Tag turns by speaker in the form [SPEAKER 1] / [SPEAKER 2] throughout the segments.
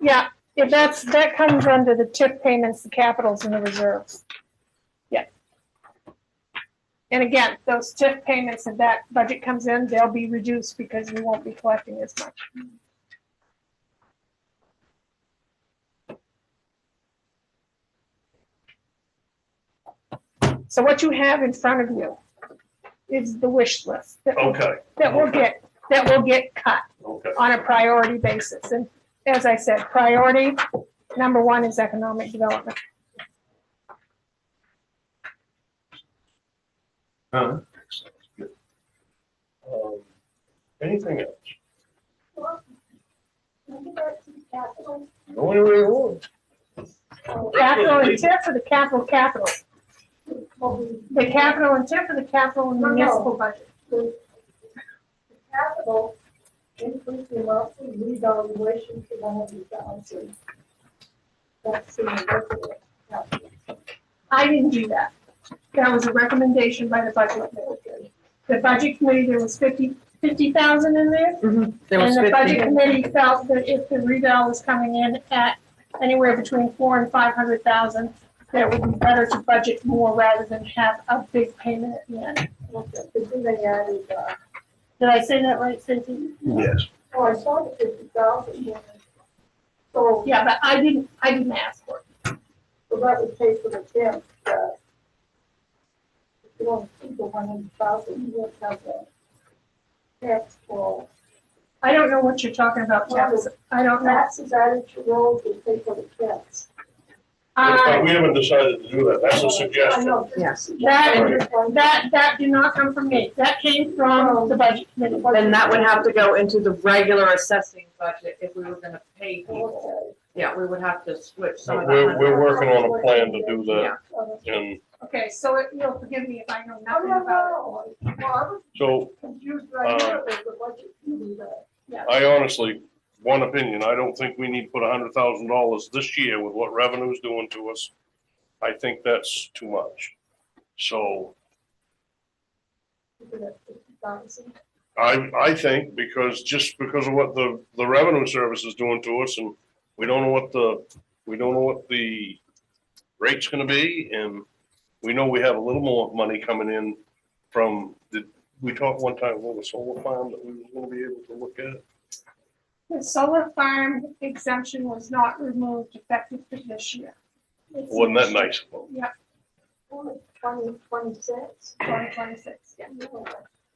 [SPEAKER 1] Yeah, if that's, that comes under the TIP payments, the capitals and the reserves. Yeah. And again, those TIP payments, if that budget comes in, they'll be reduced because we won't be collecting as much. So what you have in front of you is the wish list that,
[SPEAKER 2] Okay,
[SPEAKER 1] that will
[SPEAKER 2] okay.
[SPEAKER 1] get, that will get cut
[SPEAKER 2] okay,
[SPEAKER 1] on a priority basis. And as I said, priority number one is economic development.
[SPEAKER 2] Um, Anything else? Go anywhere you want.
[SPEAKER 1] Capital and TIF for the capital capital. The capital and TIF for the capital and municipal budget.
[SPEAKER 3] Capital increase the amount of revaluation to one hundred thousand. That's in the budget.
[SPEAKER 1] I didn't do that. That was a recommendation by the budget committee. The budget committee, there was fifty, fifty thousand in there.
[SPEAKER 4] There was
[SPEAKER 1] And the budget
[SPEAKER 4] 50.
[SPEAKER 1] committee felt that if the revale was coming in at anywhere between four and five hundred thousand, that it would be better to budget more rather than have a big payment at the end.
[SPEAKER 3] Okay, But then they added, uh,
[SPEAKER 1] Did I say that right, Cynthia?
[SPEAKER 2] Yes.
[SPEAKER 3] oh, I saw the fifty thousand. So,
[SPEAKER 1] Yeah, but I didn't, I didn't ask for it.
[SPEAKER 3] so that would pay for the temp, uh, if you want to keep the one hundred thousand, you have to have a tax for
[SPEAKER 1] I don't know what you're talking about, Travis. I don't know.
[SPEAKER 3] taxes added to roads to pay for the temps.
[SPEAKER 1] Uh,
[SPEAKER 2] We haven't decided to do that, that's a
[SPEAKER 3] I
[SPEAKER 2] suggestion.
[SPEAKER 3] know, this is
[SPEAKER 4] Yeah.
[SPEAKER 3] suggestion.
[SPEAKER 1] That- that, that did not come from me. That came from the budget committee.
[SPEAKER 4] Then that would have to go into the regular assessing budget if we were gonna pay people.
[SPEAKER 3] Okay.
[SPEAKER 4] Yeah, we would have to switch some of
[SPEAKER 2] We're,
[SPEAKER 4] that.
[SPEAKER 2] we're working on a plan to do that, and
[SPEAKER 1] Okay, so it- you'll forgive me if I know
[SPEAKER 3] No,
[SPEAKER 1] nothing
[SPEAKER 3] Oh, no,
[SPEAKER 1] about it.
[SPEAKER 3] no. Well, I was
[SPEAKER 2] so
[SPEAKER 3] confused right
[SPEAKER 2] Uh,
[SPEAKER 3] here with the budget committee that.
[SPEAKER 2] I honestly, one opinion, I don't think we need to put a hundred thousand dollars this year with what revenue's doing to us. I think that's too much. So
[SPEAKER 3] Keeping it at 50,000.
[SPEAKER 2] I, I think because, just because of what the, the revenue service is doing to us and we don't know what the, we don't know what the rate's gonna be and we know we have a little more money coming in from the, we talked one time about the solar farm that we were gonna be able to look at.
[SPEAKER 1] The solar farm exemption was not removed effective for this year.
[SPEAKER 2] Wasn't that nice?
[SPEAKER 3] Twenty, twenty-six.
[SPEAKER 1] Twenty twenty-six, yeah.
[SPEAKER 3] No,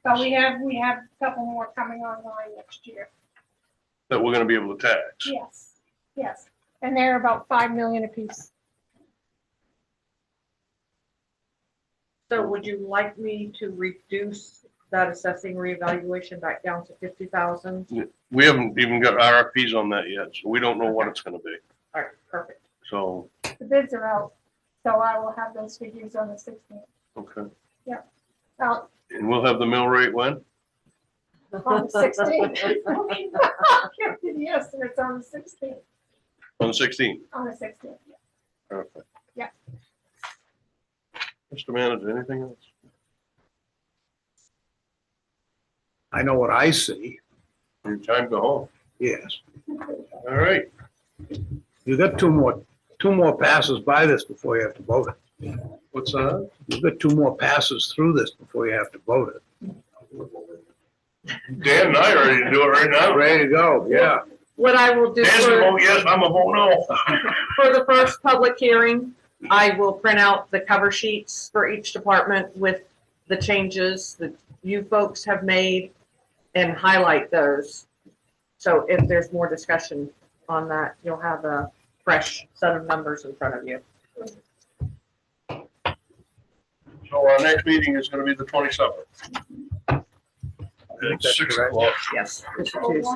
[SPEAKER 1] But we have, we have a couple more coming online next year.
[SPEAKER 2] That we're gonna be able to tax.
[SPEAKER 1] Yes, yes. And they're about five million apiece.
[SPEAKER 4] So would you like me to reduce that assessing reevaluation back down to fifty thousand?
[SPEAKER 2] We haven't even got RFPs on that yet, so we don't know what it's gonna be.
[SPEAKER 4] All right, perfect.
[SPEAKER 2] So,
[SPEAKER 1] The bids are out, so I will have those figures on the sixteenth.
[SPEAKER 2] okay.
[SPEAKER 1] Out
[SPEAKER 2] And we'll have the mill rate when?
[SPEAKER 1] on the sixteenth. Yes, and it's on the sixteenth,
[SPEAKER 2] On the sixteenth.
[SPEAKER 1] on the sixteenth.
[SPEAKER 2] Perfect.
[SPEAKER 1] Yeah.
[SPEAKER 2] Mr. Manager, anything else?
[SPEAKER 5] I know what I see,
[SPEAKER 2] Your time to go home.
[SPEAKER 5] yes.
[SPEAKER 2] All right.
[SPEAKER 5] You got two more, two more passes by this before you have to vote it.
[SPEAKER 2] What's that?
[SPEAKER 5] You've got two more passes through this before you have to vote it.
[SPEAKER 2] Dan and I are ready to do it right now.
[SPEAKER 5] Ready to go, yeah.
[SPEAKER 4] What I will do
[SPEAKER 2] Dan's a
[SPEAKER 4] for,
[SPEAKER 2] vote yes, I'm a vote no.
[SPEAKER 4] for the first public hearing, I will print out the cover sheets for each department with the changes that you folks have made and highlight those. So if there's more discussion on that, you'll have a fresh set of numbers in front of you.
[SPEAKER 2] So our next meeting is gonna be the twenty-seventh.
[SPEAKER 5] think
[SPEAKER 2] At
[SPEAKER 5] that's
[SPEAKER 2] six
[SPEAKER 5] correct.
[SPEAKER 2] o'clock.
[SPEAKER 4] Yes. Mr. Tews.